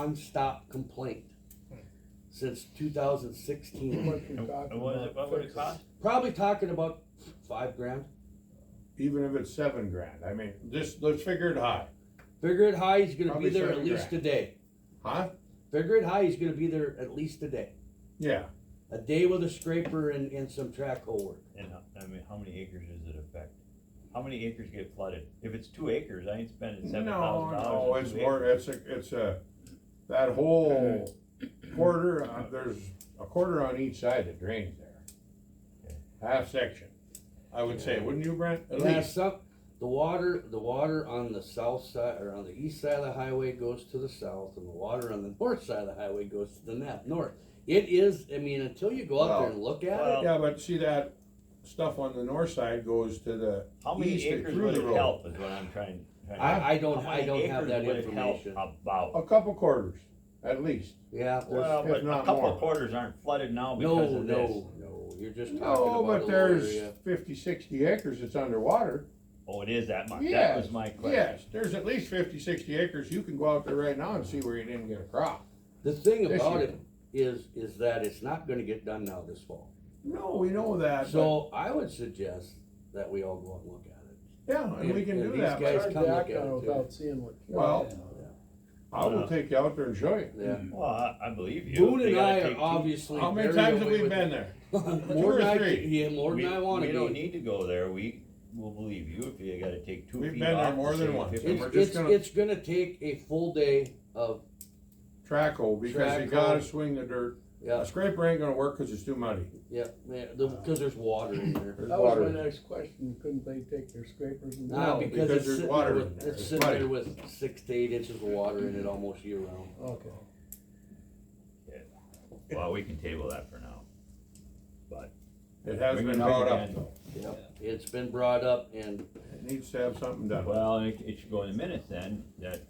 nonstop complaint since two thousand sixteen. What you're talking And what is about it, what would it fixes. cost? Probably talking about five grand. even if it's seven grand, I mean, just, let's figure it high, Figure it high, he's gonna be Probably there at seven least a grand. day. huh? Figure it high, he's gonna be there at least a day. Yeah, A day with a scraper and, and some track hole work. And, how- I mean, how many acres does it affect? How many acres get flooded? If it's two acres, I ain't spending no, seven thousand dollars. no, Oh, it's more, it's a, it's a, that whole quarter, uh, there's a quarter on each side that drains there. Half section, I would say, wouldn't you, Brent? At It has least, some, the water, the water on the south side, or on the east side of the highway goes to the south, and the water on the north side of the highway goes to the nap, north. It is, I mean, until you go out there and look at it, Well- yeah, but see that stuff on the north side goes to the How many east and acres through would the it road. help is what I'm trying, trying to. I, I don't, How I many don't have acres that would it help information. About, A couple quarters, at least. Yeah, there's- well, if but a not couple more. quarters aren't flooded now no, because of this. no, no, you're just talking No, about a but little there's area. fifty, sixty acres that's underwater. Oh, it is that much, that Yes, was my question. yes, there's at least fifty, sixty acres, you can go out there right now and see where you didn't get a crop. The thing this about year. it is, is that it's not gonna get done now this fall. No, we know that, but, So I would suggest that we all go and look at it. yeah, and we can and do these that, guys- but come Hard to look act at on it, too. without seeing what. you're Well, talking about. I uh, will take you out there and show you. Yeah. Well, I, I believe you. Boone You and gotta I take are two- obviously. How many very times have away we with been it. there? More or than I, three. yeah, more We- than I wanna We be. don't need to go there, we will believe you if you gotta take two We've feet been there off. more to than save once. 50. And we're It's, just it's, gonna- it's gonna take a full day of, Track hole, because you Track gotta hole. swing the dirt. A yeah, scraper ain't gonna work, cause it's too muddy. yeah, yeah, the, cause there's water in there. That was uh, water. my next question, couldn't they take their scrapers and? Nah, No, because because it's there's sitting water there in with, there. it's It's sitting there muddy. with six to eight inches of water in it almost year round. Okay. Well, we can table that for now. It has Bring it been up brought up again. though. Yep, it's been brought up and, It needs to have something done. Well, it, it should go in the minutes then, that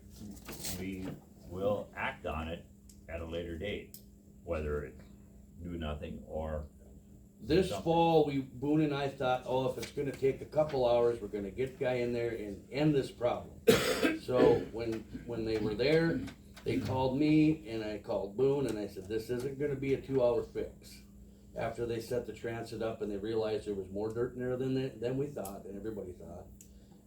we will act on it at a later date, whether it's do nothing or, this Something. fall, we, Boone and I thought, oh, if it's gonna take a couple hours, we're gonna get guy in there and end this problem. So when, when they were there, they called me and I called Boone and I said, this isn't gonna be a two hour fix. After they set the transit up and they realized there was more dirt in there than, they- than we thought and everybody thought.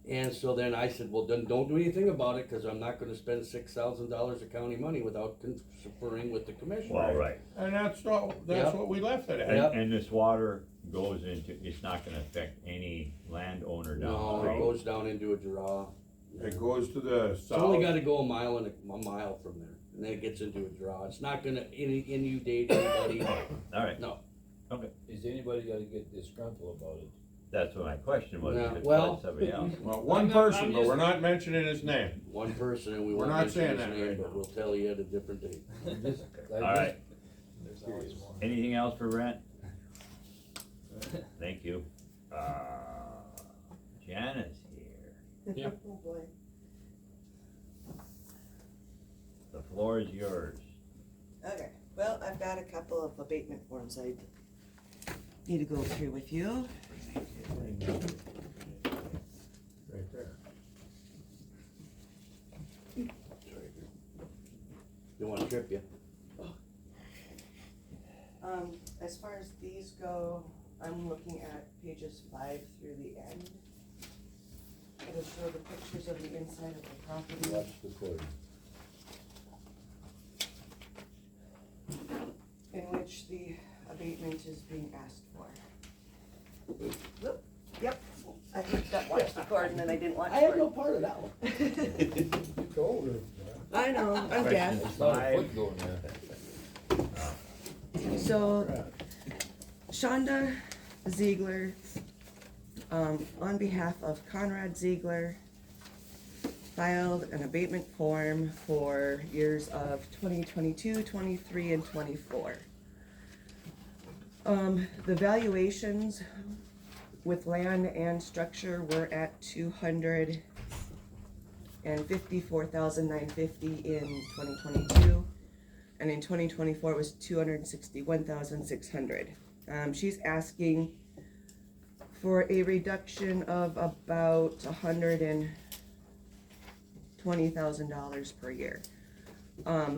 And so then I said, well, then don't do anything about it, cause I'm not gonna spend six thousand dollars of county money without conferring with the commissioner. well, right. And that's what, that's Yeah. what we left it And, at. Yep. and this water goes into, it's not gonna affect any landowner down No, the it road. goes down into a draw. It goes to the It's only south, gotta go a mile and a, a mile from there, and then it gets into a draw. It's not gonna in- inundate anybody. Alright, Is anybody gonna get disgruntled about it? that's what my question was, No, if it's well- like somebody else. well, one I'm not- I'm person, but we're just- not mentioning his name. One person, and we We're won't not mention saying his that name, right but now. we'll tell you at a different date. All Alright, There's always one. anything else for rent? Thank you. Uh, Janice here, Oh boy. the floor is yours. Okay, well, I've got a couple of abatement forms I need to go through with you. Right there. Don't wanna trip you. Um, as far as these go, I'm looking at pages five through the end. It'll show the pictures of the inside of the property. In which the abatement is being asked for. Whoop, Yep, I hit that watch the cord and then I didn't watch for it. part of that one. You told her. I know, I'm deaf. It's not a foot going there. So Shonda Ziegler, um, on behalf of Conrad Ziegler, filed an abatement form for years of 2022, 23, and 24. Um, the valuations with land and structure were at 254,950 in 2022 and in twenty twenty-four it was two hundred and sixty-one thousand six hundred. Um, she's asking for a reduction of about a hundred and twenty thousand dollars per year. Um,